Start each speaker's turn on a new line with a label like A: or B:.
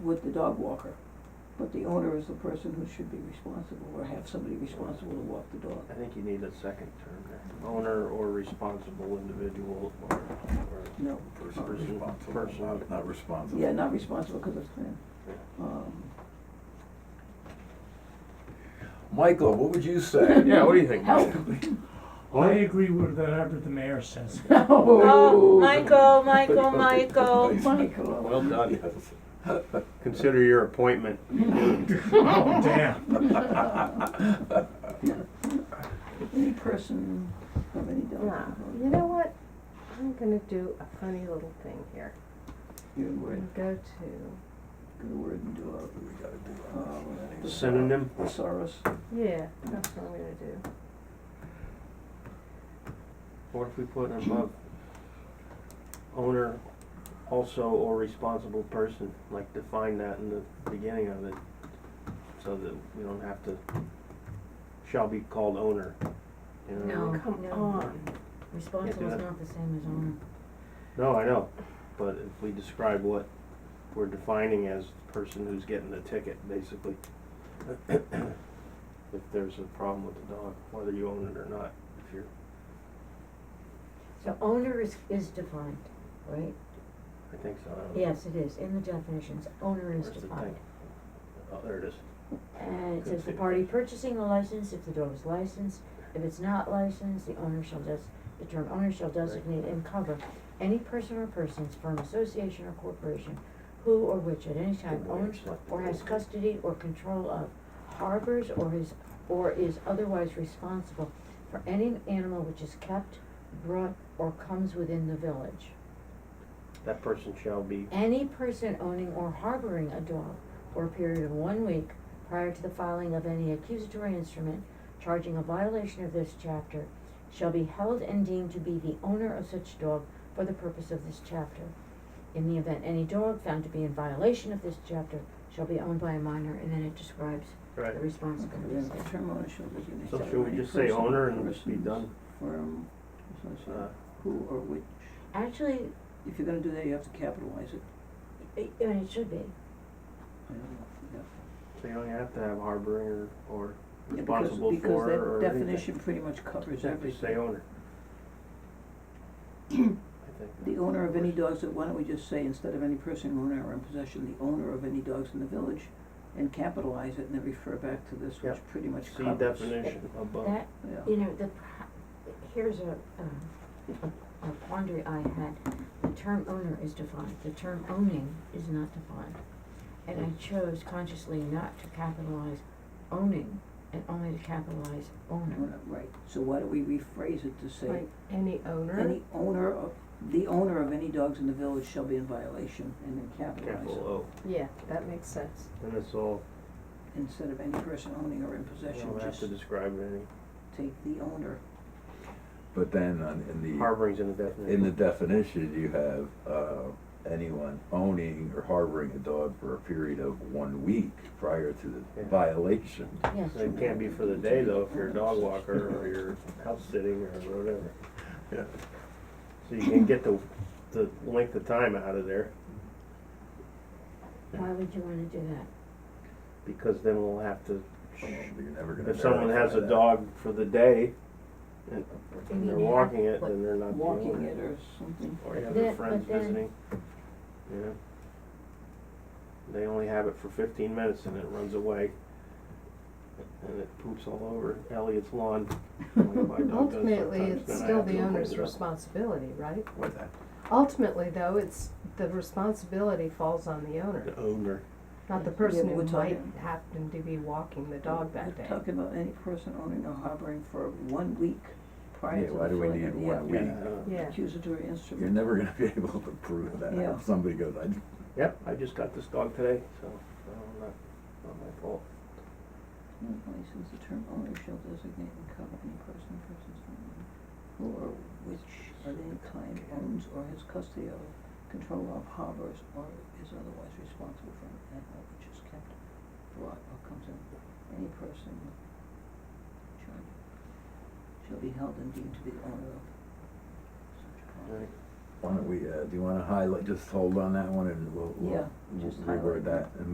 A: with the dog walker. But the owner is the person who should be responsible or have somebody responsible to walk the dog.
B: I think you need a second term there, owner or responsible individual or, or
A: No.
B: person,
A: not
B: person.
C: Not- Not responsible.
A: Yeah, not responsible because of him.
B: Yeah.
A: Um,
C: Michael, what would you say?
D: Yeah, what do you think,
A: help.
D: Michael?
E: I agree with whatever the mayor says.
A: No.
F: Oh, Michael, Michael, Michael.
A: Michael.
B: Well done.
C: Yes.
B: Consider your appointment.
E: Oh, damn.
A: Any person of any dog.
F: Nah, you know what? I'm gonna do a funny little thing here.
A: Good word,
F: I'm gonna go to,
A: good word and do a,
C: We gotta do
A: uh,
C: that.
B: Synonym,
A: thesaurus.
F: yeah, that's what I'm gonna do.
B: what if we put above owner also or responsible person, like define that in the beginning of it, so that we don't have to, shall be called owner, you know?
G: No,
F: Come
G: no.
F: on.
G: Responsible is not the same as owner.
B: No, I know, but if we describe what we're defining as the person who's getting the ticket, basically. If there's a problem with the dog, whether you own it or not, if you're,
G: So owner is, is defined, right?
B: I think so, I don't know.
G: Yes, it is, in the definitions, owner is
B: Where's the thing?
G: defined.
B: Oh, there it is.
G: And it
B: Good
G: says the
B: save.
G: party purchasing the license, if the dog is licensed, if it's not licensed, the owner shall des- the term owner shall designate and cover any person or persons, firm, association, or corporation, who or which at any time
B: Good boy,
G: owns
B: it's like the
G: or has
B: gold.
G: custody or control of, harbors or is, or is otherwise responsible for any animal which is kept, brought, or comes within the village.
B: That person shall be,
G: Any person owning or harboring a dog for a period of one week prior to the filing of any accusatory instrument charging a violation of this chapter shall be held and deemed to be the owner of such dog for the purpose of this chapter. In the event any dog found to be in violation of this chapter shall be owned by a minor, and then it describes the
B: right,
G: responsibilities.
A: The term owner shall designate.
B: so should we just say
A: any person,
B: owner and be
A: persons,
B: done?
A: Firm, association,
B: Uh,
A: who or which.
G: Actually,
A: If you're gonna do that, you have to capitalize it.
G: it, I mean, it should be,
A: I don't know, yeah.
B: So you don't have to have harboring or, or
A: Yeah, because-
B: responsible for or anything.
A: Because that definition pretty much covers
B: Just have to
A: everything.
B: say owner. I think
A: The
B: that-
A: owner of any dogs, that why don't we just say instead of any person, owner, or in possession, the owner of any dogs in the village, and capitalize it and then refer back to this, which
B: Yep.
A: pretty much
B: See
A: covers.
B: definition above.
G: that,
A: Yeah,
G: You know, the, pro- here's a, um, a a quandary I had. The term owner is defined, the term owning is not defined. And I chose consciously not to capitalize owning and only to capitalize owner.
A: Owner, right, so why don't we rephrase it to say,
F: Like any owner,
A: any owner of, the owner of any dogs in the village shall be in violation, and then capitalize it.
B: Capital
F: yeah, that makes sense.
B: O, and it's all,
A: Instead of any person owning or in
B: you
A: possession,
B: don't have
A: just
B: to describe any,
A: take the owner,
C: But then on, in the,
B: harboring's in the definition.
C: in the definition, you have, uh, anyone owning or harboring a dog for a period of one week prior to the
B: Yeah.
C: violation.
G: Yes,
B: So It can't be for the day though, if you're a dog walker or you're out sitting or whatever.
C: Yeah.
B: So you can get the, the length of time out of there,
G: why would you wanna do that?
B: because then we'll have to,
C: You're never gonna
B: if someone has
C: verify
B: a
C: that.
B: dog for the day, and and
G: mean
B: they're
G: you have-
B: walking it,
G: what-
B: then they're not the owner.
A: walking it or something.
B: Or you have
G: Then-
B: their
G: but
B: friends
G: then-
B: visiting, you know? They only have it for fifteen minutes and it runs away. And it poops all over Elliot's lawn. like my dog does
F: Ultimately,
B: sometimes,
F: it's
B: then I
F: still
B: have to
F: the
B: go
F: owner's
B: clean it up.
F: responsibility, right?
C: What's that?
F: Ultimately, though, it's, the responsibility falls on the owner,
B: The owner,
F: not the
A: Yeah,
F: person
A: but
F: who
A: we're
F: might
A: talking-
F: happen to be walking the dog that day.
A: We're talking about any person owning or harboring for one week prior
C: Yeah,
A: to the
C: why do we
A: filing
C: need
A: of the
C: one
A: act-
C: week?
B: yeah, I know.
F: Yeah.
A: accusatory
C: You're
A: instrument.
C: never gonna be able to prove that.
A: Yeah.
C: If somebody goes, I,
B: Yep, I just got this dog today, so, uh, not, not my fault.
A: No license, the term owner shall designate and cover any person, persons, owner, who or which at any time owns or has custody of, control of, harbors, or is otherwise responsible for an animal which is kept, brought, or comes in, any person charged shall be held and deemed to be the owner of such property.
B: Right.
C: why don't we, uh, do you wanna highlight, just hold on that one and we'll,
A: Yeah,
C: we'll we'll
A: just highlight
C: reword
A: that.
C: that and